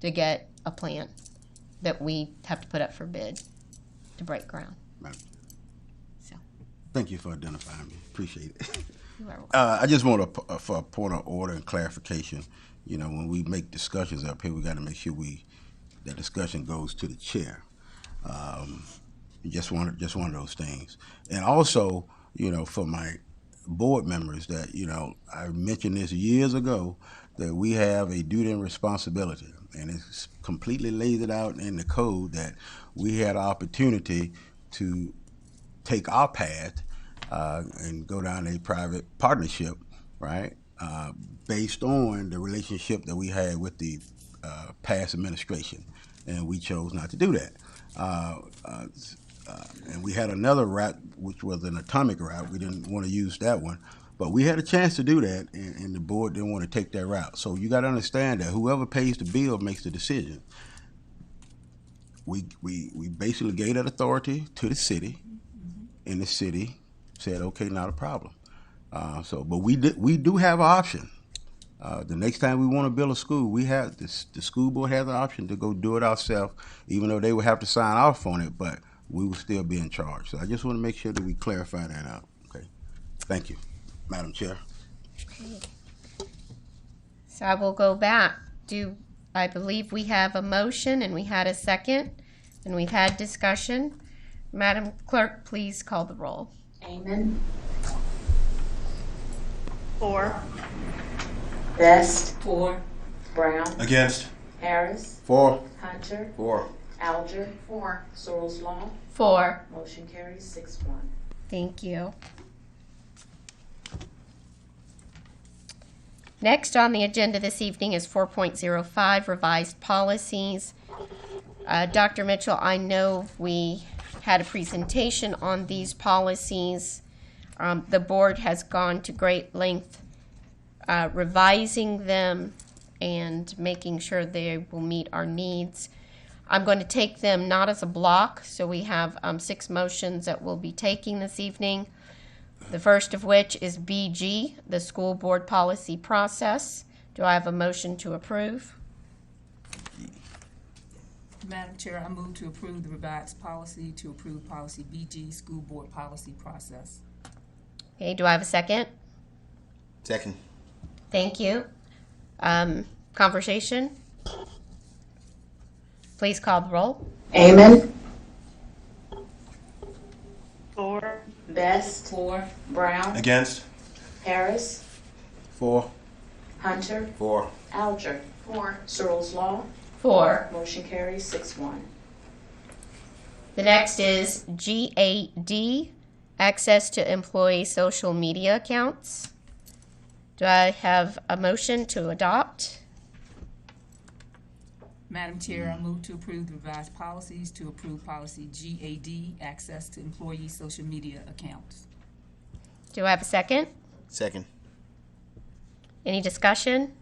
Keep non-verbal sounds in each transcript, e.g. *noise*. to get a plan that we have to put up for bid to break ground. Madam Chair. So, Thank you for identifying me. Appreciate it. *laughs* you are Uh, I just want to, for a point of order and clarification, you know, when we make discussions up here, we got to make sure we, that discussion goes to the chair. Um, just one, just one of those things. And also, you know, for my board members that, you know, I mentioned this years ago, that we have a duty and responsibility. And it's completely laid it out in the code that we had opportunity to take our path uh, and go down a private partnership, right? Uh, based on the relationship that we had with the uh, past administration, and we chose not to do that. Uh, uh, s- uh, and we had another route, which was an atomic route. We didn't want to use that one, but we had a chance to do that, and, and the board didn't want to take that route. So you got to understand that whoever pays the bill makes the decision we, we, we basically gave that authority to the city, and the city said, okay, not a problem. Uh, so, but we did, we do have an option. Uh, the next time we want to build a school, we have, this, the school board has an option to go do it ourselves, even though they would have to sign off on it, but we will still be in charge. So I just want to make sure that we clarify that out, okay? Thank you, Madam Chair. So I will go back. Do, I believe we have a motion and we had a second and we've had discussion. Madam Clerk, please call the roll. Amon, Four. Best, Four. Brown, Against. Harris, Four. Hunter, Four. Alger. Four. Searles Law, Four. motion carries six one. Thank you. Next on the agenda this evening is 4.05 revised policies. Uh, Dr. Mitchell, I know we had a presentation on these policies. Um, The board has gone to great length uh, revising them and making sure they will meet our needs. I'm going to take them not as a block, so we have um, six motions that we'll be taking this evening. The first of which is BG, the school board policy process. Do I have a motion to approve? Madam Chair, I move to approve the revised policy to approve policy BG, school board policy process. Okay, do I have a second? Second. Thank you. Um, conversation? Please call the roll. Amon, Four. Best, Four. Brown, Against. Harris, Four. Hunter, Four. Alger. Four. Searles Law, Four. motion carries six one. The next is GAD, access to employee social media accounts. Do I have a motion to adopt? Madam Chair, I move to approve the revised policies to approve policy GAD, access to employee social media accounts. Do I have a second? Second. Any discussion?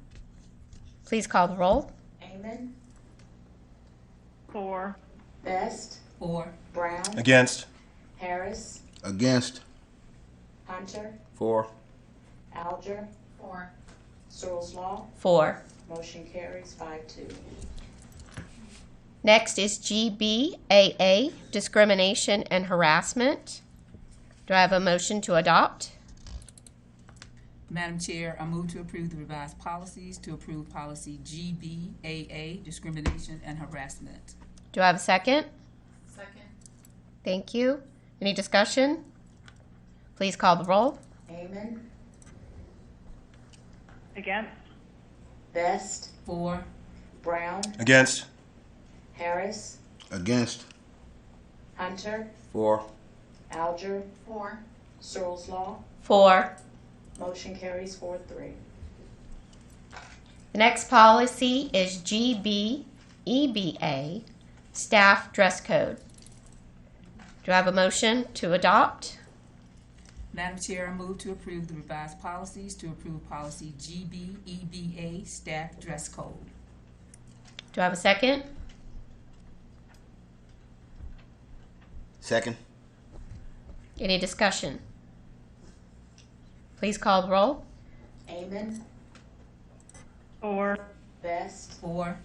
Please call the roll. Amon, Four, Best, Four. Brown, Against. Harris, Against. Hunter, Four. Alger. Four. Searles Law, Four. motion carries five two. Next is GBAA, discrimination and harassment. Do I have a motion to adopt? Madam Chair, I move to approve the revised policies to approve policy GBAA, discrimination and harassment. Do I have a second? second, Thank you. Any discussion? Please call the roll. Amon, against, Best, Four. Brown, Against. Harris, Against. Hunter, Four. Alger. Four. Searles Law, Four. motion carries four three. The next policy is GBEBA, staff dress code. Do I have a motion to adopt? Madam Chair, I move to approve the revised policies to approve policy GBEBA, staff dress code. Do I have a second? Second. Any discussion? Please call the roll. Amon, four, Best, Four.